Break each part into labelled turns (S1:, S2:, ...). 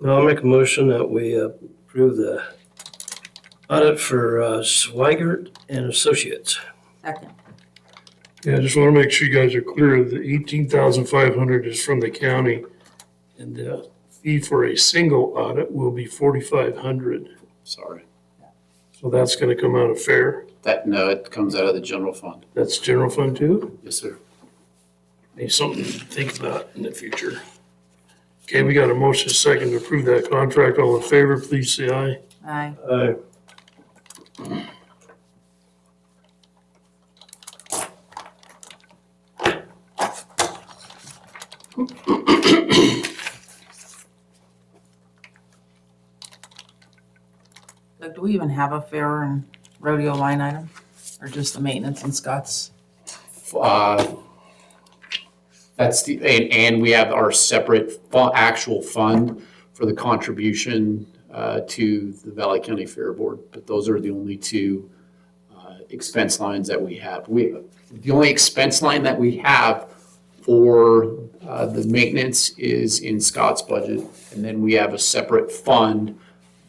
S1: Now I'll make a motion that we uh, approve the audit for uh, Swigert and Associates.
S2: Second.
S3: Yeah, I just want to make sure you guys are clear, the eighteen thousand five hundred is from the county. And the fee for a single audit will be forty-five hundred,
S4: Sorry.
S3: so that's gonna come out of fair,
S4: That, no, it comes out of the general fund.
S3: that's general fund too,
S4: Yes, sir.
S3: Need something to think about in the future. Okay, we got a motion second to approve that contract, all in favor, please say aye.
S2: Aye.
S1: Aye.
S2: Like, do we even have a fair and rodeo line item? Or just the maintenance and Scott's?
S4: Uh, That's the, and, and we have our separate fu- actual fund for the contribution uh, to the Valley County Fair Board. But those are the only two uh, expense lines that we have. We, the only expense line that we have for uh, the maintenance is in Scott's budget. And then we have a separate fund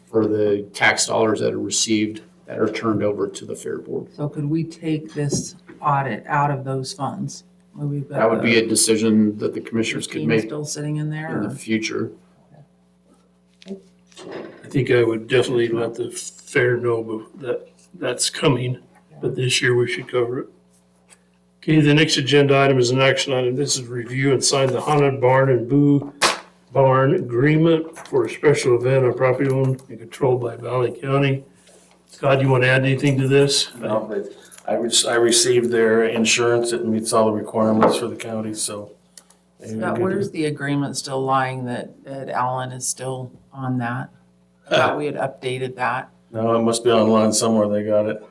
S4: for the tax dollars that are received that are turned over to the Fair Board.
S2: So could we take this audit out of those funds? Where we've got
S4: That would be
S2: the
S4: a decision that the commissioners could
S2: 15
S4: make
S2: Still sitting in there?
S4: in the
S2: or-
S4: future.
S3: I think I would definitely let the fair know bef- that that's coming, but this year we should cover it. Okay, the next agenda item is an action item. This is review and sign the haunted barn and boo barn agreement for a special event on property owned and controlled by Valley County. Scott, you want to add anything to this?
S5: No, they- I, re- I received their insurance, it meets all the requirements for the county, so. they-
S2: Scott, where's the agreement still lying that, that Alan is still on that? I thought we had updated that.
S5: No, it must be online somewhere, they got it.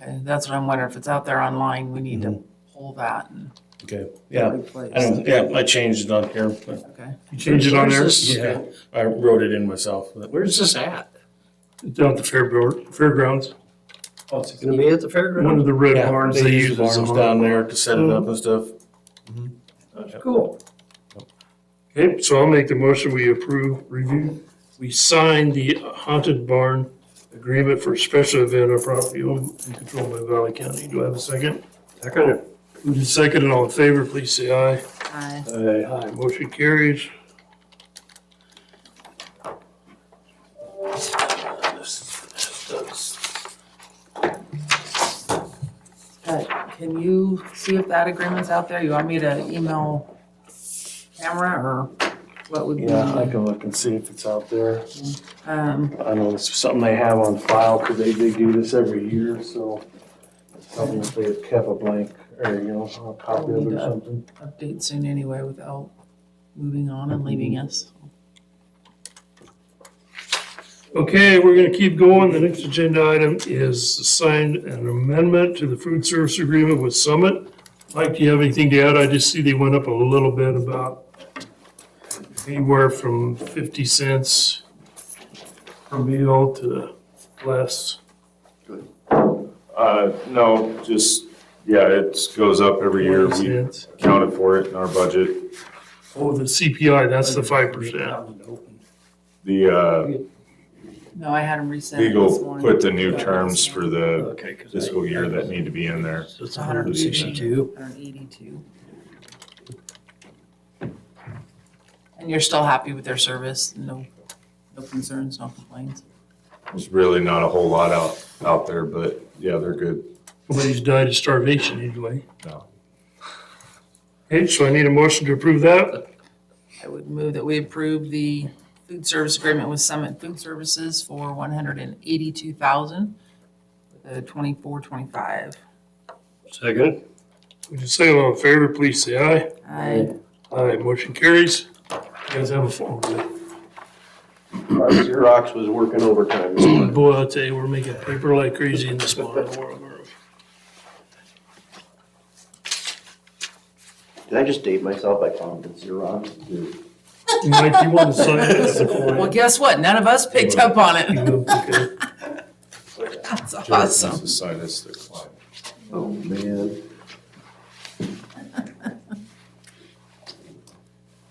S2: Okay, that's what I'm wondering. If it's out there online, we need to pull that and
S5: Mm-hmm. Okay, yeah,
S2: replace.
S5: I don't, yeah, I changed it on here, but,
S2: Okay.
S3: You change it on there?
S1: Where's this-
S5: yeah, I wrote it in myself, but
S1: Where's this at?
S3: Down at the fairboard, fairgrounds,
S1: Oh, it's gonna be at the
S3: one
S1: fairground?
S3: of the red
S5: Yeah,
S3: barns
S5: they
S3: they
S5: use
S3: use
S5: the
S3: as a
S5: barns
S3: barn.
S5: down there to set it up and stuff.
S1: Cool.
S3: Okay, so I'll make the motion, we approve, review, we sign the haunted barn agreement for a special event on property owned and controlled by Valley County. Do I have a second?
S1: Second.
S3: Who's second and all in favor, please say aye.
S2: Aye.
S1: Aye.
S3: Aye, motion carries.
S2: But can you see if that agreement's out there? You want me to email camera or what would be?
S5: Yeah, I can look and see if it's out there.
S2: Um,
S5: I know it's something they have on file, because they, they do this every year, so. Something if they have kept a blank, or, you know, a copy of it or something.
S2: update soon anyway without moving on and
S5: Mm-hmm.
S2: leaving us.
S3: Okay, we're gonna keep going. The next agenda item is to sign an amendment to the food service agreement with Summit. Mike, do you have anything to add? I just see they went up a little bit about anywhere from fifty cents per meal to less.
S6: Uh, no, just, yeah, it goes up every year.
S3: 20
S6: We
S3: cents.
S6: accounted for it in our budget.
S3: Oh, the CPI, that's the five percent.
S6: The, uh,
S2: No, I had him resend it this
S6: legal put
S2: morning.
S6: the new terms for the
S1: Okay. 'cause I-
S6: fiscal year that need to be in there.
S1: So it's hundred and sixty-two.
S2: Hundred eighty-two. And you're still happy with their service? No, no concerns, no complaints?
S6: There's really not a whole lot out, out there, but yeah, they're good.
S3: Nobody's died of starvation anyway.
S6: No.
S3: Okay, so I need a motion to approve that.
S2: I would move that we approve the food service agreement with Summit Food Services for one hundred and eighty-two thousand, uh, twenty-four, twenty-five.
S1: Second.
S3: Would you say all in favor, please say aye.
S2: I,
S3: Aye, motion carries. You guys have a phone.
S7: Uh, Xerox was working overtime this morning.
S3: Boy, I'll tell you, we're making paper like crazy in this modern world.
S7: Did I just date myself by calling it Xerox?
S3: Mike, you want to sign this?
S2: well, guess what? None of us picked up on it.
S3: Okay.
S2: That's
S6: Jared needs
S2: awesome.
S6: to sign as their client.
S7: Oh, man.